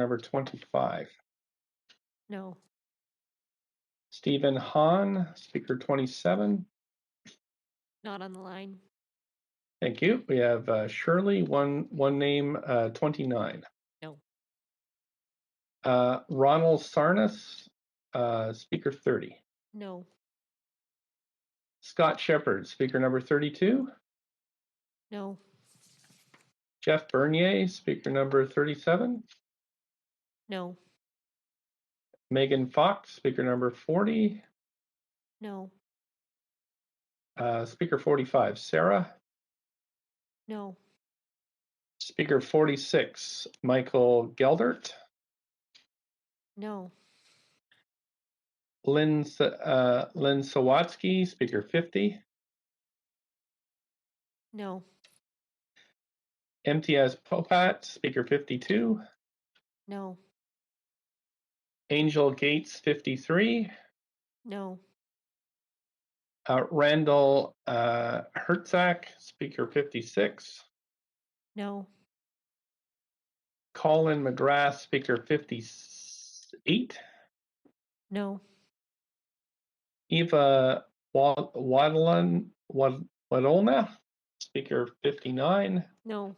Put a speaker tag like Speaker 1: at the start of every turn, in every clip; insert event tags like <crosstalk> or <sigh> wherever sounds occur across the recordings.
Speaker 1: number 25.
Speaker 2: No.
Speaker 1: Stephen Hahn, speaker 27.
Speaker 2: Not on the line.
Speaker 1: Thank you. We have uh, Shirley, one, one name, uh, 29.
Speaker 2: No.
Speaker 1: Uh, Ronald Sarnas, uh, speaker 30.
Speaker 2: No.
Speaker 1: Scott Shepard, speaker number 32.
Speaker 2: No.
Speaker 1: Jeff Bernier, speaker number 37.
Speaker 2: No.
Speaker 1: Megan Fox, speaker number 40.
Speaker 2: No.
Speaker 1: Uh, speaker 45, Sarah.
Speaker 2: No.
Speaker 1: Speaker 46, Michael Geldert.
Speaker 2: No.
Speaker 1: Lynn, S- uh, Lynn Sawatsky, speaker 50.
Speaker 2: No.
Speaker 1: MTS Popat, speaker 52.
Speaker 2: No.
Speaker 1: Angel Gates, 53.
Speaker 2: No.
Speaker 1: Uh, Randall uh, Hertzak, speaker 56.
Speaker 2: No.
Speaker 1: Colin McGrath, speaker 58.
Speaker 2: No.
Speaker 1: Eva Wa- Wadlin, Wad- Wadolna, speaker 59.
Speaker 2: No.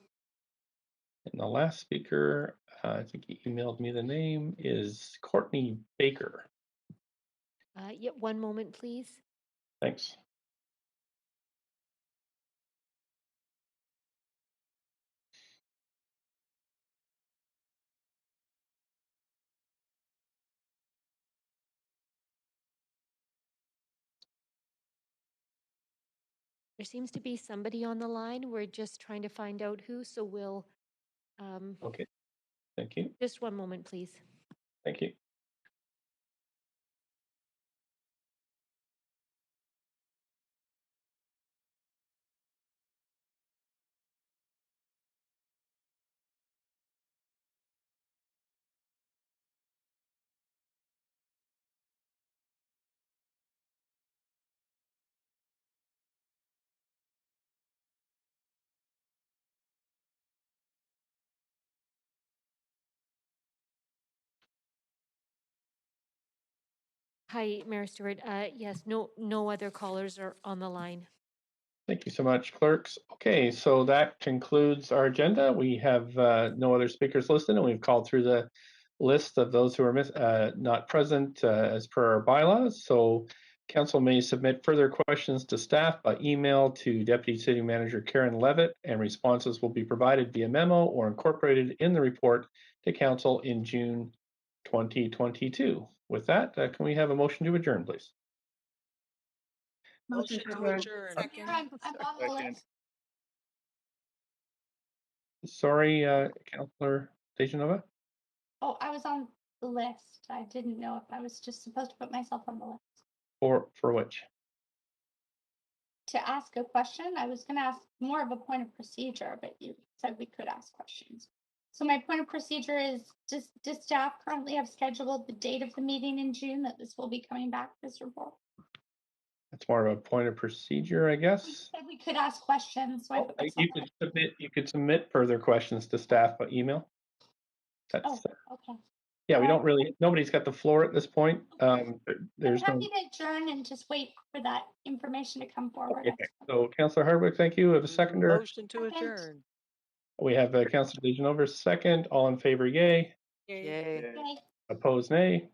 Speaker 1: And the last speaker, uh, I think he emailed me the name, is Courtney Baker.
Speaker 2: Uh, yeah, one moment, please.
Speaker 1: Thanks.
Speaker 2: There seems to be somebody on the line. We're just trying to find out who, so we'll, um,
Speaker 1: Okay. Thank you.
Speaker 2: just one moment, please.
Speaker 1: Thank you.
Speaker 2: Hi, Mayor Stewart. Uh, yes, no, no other callers are on the line.
Speaker 1: Thank you so much, clerks. Okay, so that concludes our agenda. We have uh, no other speakers listed, and we've called through the list of those who are miss- uh, not present uh, as per our bylaws. So council may submit further questions to staff by email to Deputy City Manager Karen Levitt, and responses will be provided via memo or incorporated in the report to council in June 2022. With that, uh, can we have a motion to adjourn, please?
Speaker 3: Motion to adjourn.
Speaker 4: Second.
Speaker 1: Sorry, uh, Councillor Dejanova.
Speaker 4: Oh, I was on the list. I didn't know if I was just supposed to put myself on the list.
Speaker 1: For for which?
Speaker 4: To ask a question, I was gonna ask more of a point of procedure, but you said we could ask questions. So my point of procedure is just, does staff currently have scheduled the date of the meeting in June that this will be coming back, this report?
Speaker 1: That's more of a point of procedure, I
Speaker 4: You <laughs>
Speaker 1: guess.
Speaker 4: said we could ask questions, so I put myself
Speaker 1: Oh, You
Speaker 4: on.
Speaker 1: could submit, you could submit further questions to staff by email. That's,
Speaker 4: Okay.
Speaker 1: yeah, we don't really, nobody's got the floor at this point. Um, there-
Speaker 4: I'm
Speaker 1: there's no,
Speaker 4: happy to adjourn and just wait for that information to come forward.
Speaker 1: Okay, so Councillor Hardwick, thank you. We have a seconder.
Speaker 3: Motion to
Speaker 4: Second.
Speaker 3: adjourn.
Speaker 1: We have uh, Councillor Dejanova, second. All in favor, yay.
Speaker 3: Yay.
Speaker 4: Okay.
Speaker 1: Opposed, nay.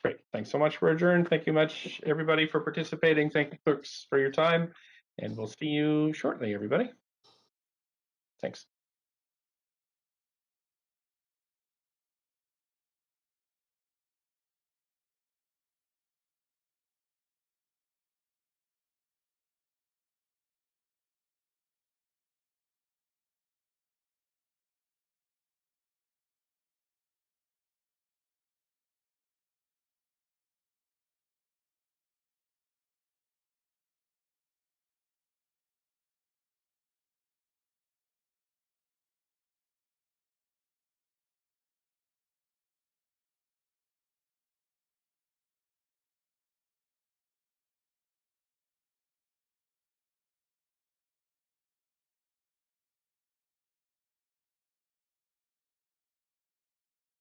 Speaker 1: Great. Thanks so much for adjourn. Thank you much, everybody, for participating. Thank you, clerks, for your time. And we'll see you shortly, everybody. Thanks.